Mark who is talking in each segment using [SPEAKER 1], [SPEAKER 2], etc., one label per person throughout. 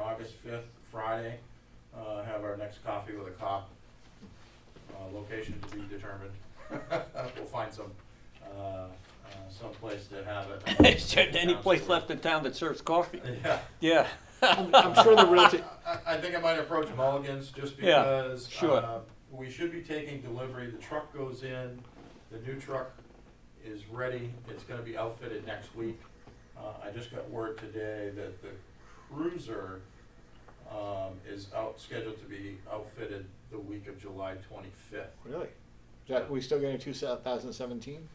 [SPEAKER 1] August fifth, Friday, uh, have our next coffee with a cop. Uh, Location to be determined. We'll find some, uh, uh, someplace to have it.
[SPEAKER 2] Is there any place left in town that serves coffee?
[SPEAKER 1] Yeah.
[SPEAKER 2] Yeah.
[SPEAKER 3] I'm, I'm sure the realty.
[SPEAKER 1] I, I think I might approach Mulligan's just
[SPEAKER 2] Yeah,
[SPEAKER 1] because.
[SPEAKER 2] sure.
[SPEAKER 1] uh, We should be taking delivery, the truck goes in, the new truck is ready, it's gonna be outfitted next week. Uh, I just got word today that the cruiser, um, is out, scheduled to be outfitted the week of July twenty-fifth,
[SPEAKER 3] Really? Is that, we still getting 2017?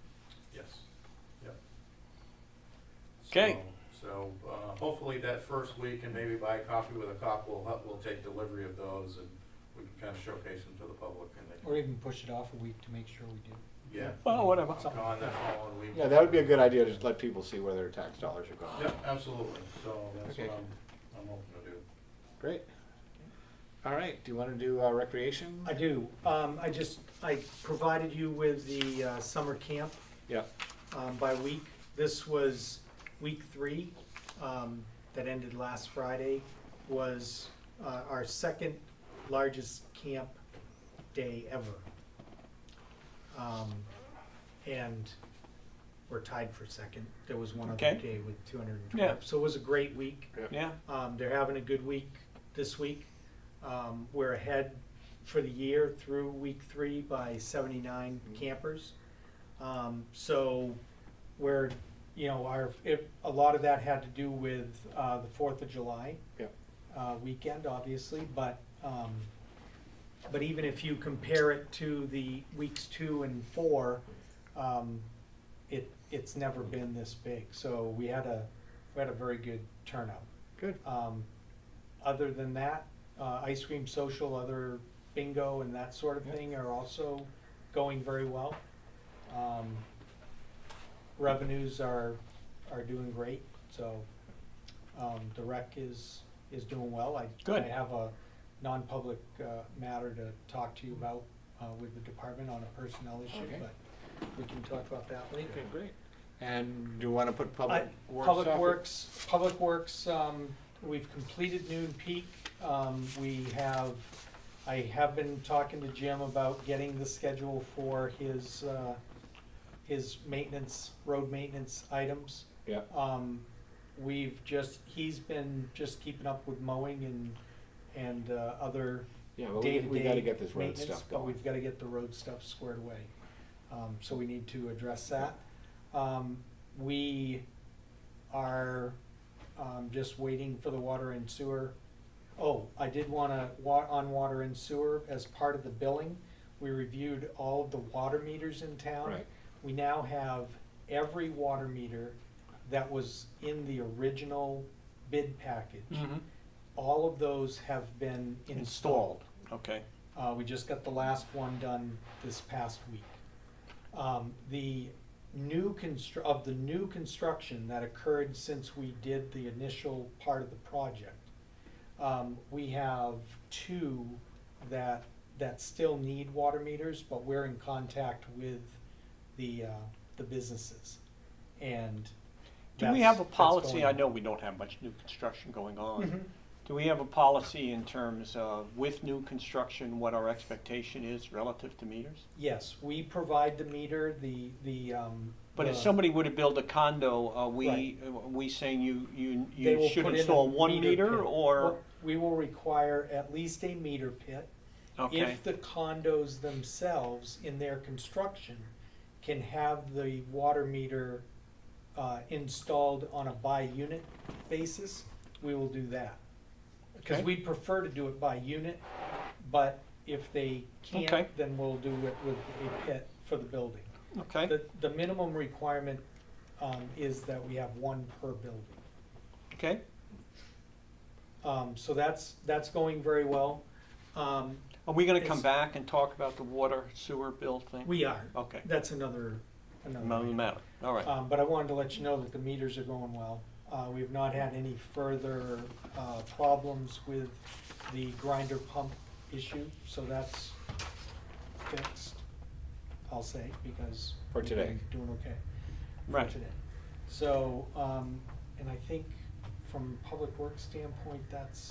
[SPEAKER 1] yes, yep.
[SPEAKER 2] Okay.
[SPEAKER 1] So, so, uh, hopefully that first week and maybe buy coffee with a cop, we'll, hu- we'll take delivery of those and we can kind of showcase them to the public and they can
[SPEAKER 4] Or even push it off a week to make sure we do.
[SPEAKER 1] Yeah.
[SPEAKER 2] Well, whatever.
[SPEAKER 1] I'm gone that following week.
[SPEAKER 3] Yeah, that would be a good idea to just let people see where their tax dollars are going.
[SPEAKER 1] Yep, absolutely, so that's what
[SPEAKER 3] Okay.
[SPEAKER 1] I'm, I'm hoping to do.
[SPEAKER 3] Great. All right. Do you want to do uh, recreation?
[SPEAKER 4] I do. Um, I just, I provided you with the uh, summer camp
[SPEAKER 3] yeah.
[SPEAKER 4] um, by week. This was week three, um, that ended last Friday, was, uh, our second largest camp day ever. Um, and we're tied for second. There was one other
[SPEAKER 2] Okay.
[SPEAKER 4] day with two hundred and
[SPEAKER 2] Yeah.
[SPEAKER 4] twelve. So it was a great week.
[SPEAKER 2] Yeah,
[SPEAKER 4] Um, they're having a good week this week. Um, we're ahead for the year through week three by seventy-nine campers. Um, so we're, you know, our, if, a lot of that had to do with, uh, the Fourth of July
[SPEAKER 3] Yep.
[SPEAKER 4] uh, weekend, obviously, but, um, but even if you compare it to the weeks two and four, um, it, it's never been this big. So we had a, we had a very good turnout.
[SPEAKER 3] Good.
[SPEAKER 4] Um, other than that, uh, ice cream social, other bingo and that sort of
[SPEAKER 3] Yeah.
[SPEAKER 4] thing are also going very well. Um, revenues are, are doing great, so, um, the rec is, is doing well. I,
[SPEAKER 2] Good.
[SPEAKER 4] I have a non-public, uh, matter to talk to you about, uh, with the department on a personnel issue,
[SPEAKER 3] Okay.
[SPEAKER 4] but we can talk about that later.
[SPEAKER 3] Okay. Great. And do you want to put public
[SPEAKER 4] I-
[SPEAKER 3] works?
[SPEAKER 4] Public
[SPEAKER 3] off it?
[SPEAKER 4] Works, Public Works, um, we've completed Noon Peak. Um, we have, I have been talking to Jim about getting the schedule for his, uh, his maintenance, road maintenance items.
[SPEAKER 3] Yeah.
[SPEAKER 4] Um, we've just, he's been just keeping up with mowing and, and, uh, other
[SPEAKER 3] Yeah, but we,
[SPEAKER 4] day-to-day
[SPEAKER 3] we got to get this road
[SPEAKER 4] maintenance,
[SPEAKER 3] stuff
[SPEAKER 4] But
[SPEAKER 3] going.
[SPEAKER 4] we've gotta get the road stuff squared away. Um, so we need to address that. Um, we are, um, just waiting for the water and sewer. Oh, I did wanna, wa- on water and sewer, as part of the billing, we reviewed all of the water meters in town.
[SPEAKER 3] Right.
[SPEAKER 4] We now have every water meter that was in the original bid package.
[SPEAKER 3] Mm-hmm.
[SPEAKER 2] Mhm.
[SPEAKER 4] All of those have been installed.
[SPEAKER 2] okay.
[SPEAKER 4] Uh, we just got the last one done this past week. Um, the new constru, of the new construction that occurred since we did the initial part of the project, um, we have two that, that still need water meters, but we're in contact with the, uh, the businesses. And
[SPEAKER 2] Do we
[SPEAKER 4] that's-
[SPEAKER 2] have a
[SPEAKER 4] that's
[SPEAKER 2] policy,
[SPEAKER 4] going
[SPEAKER 2] I
[SPEAKER 4] on.
[SPEAKER 2] know we don't have much new construction going on.
[SPEAKER 4] Mhm.
[SPEAKER 2] Do we have a policy in terms of with new construction, what our expectation is relative to meters?
[SPEAKER 4] Yes, we provide the meter, the, the, um.
[SPEAKER 2] But if
[SPEAKER 4] the-
[SPEAKER 2] somebody were to build a condo, are we,
[SPEAKER 4] Right.
[SPEAKER 2] are we saying you, you,
[SPEAKER 4] They will
[SPEAKER 2] you should
[SPEAKER 4] put in a
[SPEAKER 2] install one meter
[SPEAKER 4] pit.
[SPEAKER 2] or?
[SPEAKER 4] We will require at least a meter pit.
[SPEAKER 2] Okay,
[SPEAKER 4] If the condos themselves in their construction can have the water meter uh, installed on a by-unit basis, we will do that. Because
[SPEAKER 2] Okay.
[SPEAKER 4] we prefer to do it by unit, but if they
[SPEAKER 2] Okay.
[SPEAKER 4] can't, then we'll do it with a pit for the building.
[SPEAKER 2] okay,
[SPEAKER 4] The, the minimum requirement um, is that we have one per building.
[SPEAKER 2] okay.
[SPEAKER 4] Um, so that's, that's going very well. Um,
[SPEAKER 2] Are we gonna come
[SPEAKER 4] It's-
[SPEAKER 2] back and talk about the water sewer bill thing?
[SPEAKER 4] we are,
[SPEAKER 2] Okay,
[SPEAKER 4] that's another, another.
[SPEAKER 2] another
[SPEAKER 4] item.
[SPEAKER 2] matter, all right.
[SPEAKER 4] Um, but I wanted to let you know that the meters are going well. Uh, we've not had any further, uh, problems with the grinder pump issue, so that's fixed, I'll say, because.
[SPEAKER 3] For
[SPEAKER 4] we've been
[SPEAKER 3] today.
[SPEAKER 4] Doing okay. for
[SPEAKER 2] Right.
[SPEAKER 4] today. So, um, and I think from public works standpoint, that's